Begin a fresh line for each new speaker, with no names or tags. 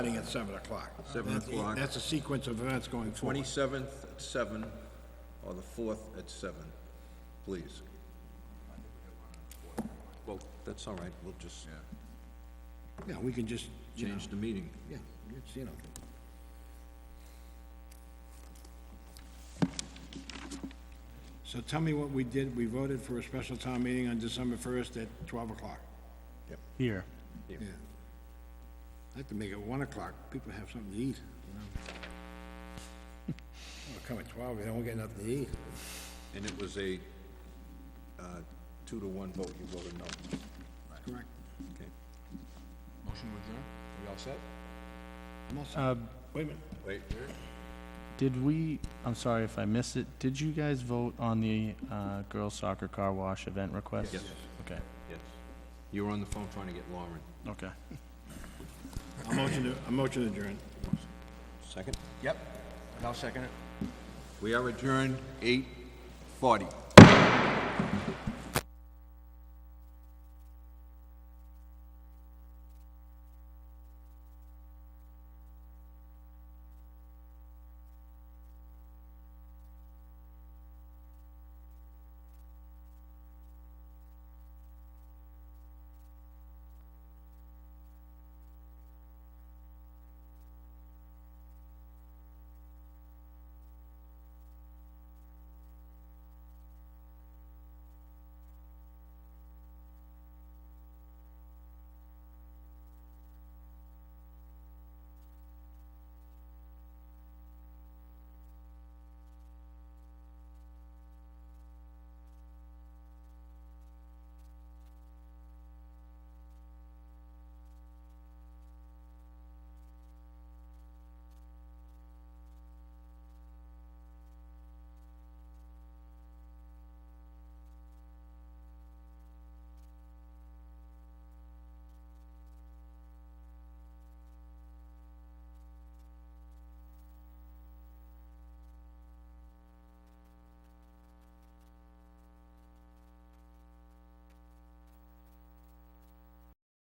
Starting at seven o'clock.
Seven
That-
o'clock.
That's a sequence of events going forward.
Twenty-seventh at seven, or the fourth at seven, please. Well, that's all right, we'll just
Yeah, we can just, you know,
change the meeting.
yeah, it's, you know. So tell me what we did. We voted for a special town meeting on December first at twelve o'clock.
Here.
Yeah. I have to make it one o'clock. People have something to eat, you know. Well, Come at twelve, they don't get nothing to eat.
And it was a, uh, two to one vote, you voted no.
Correct.
Okay.
Motion to adjourn?
We all set?
I'm all set. Wait a minute.
Wait,
Did we, I'm sorry if I missed it, did you guys vote on the uh, girls soccer car wash event request?
Yes.
Okay,
yes. You were on the phone trying to get Lauren.
okay.
A motion to, a motion adjourned.
Second?
Yep, and I'll second it.
We are adjourned eight forty.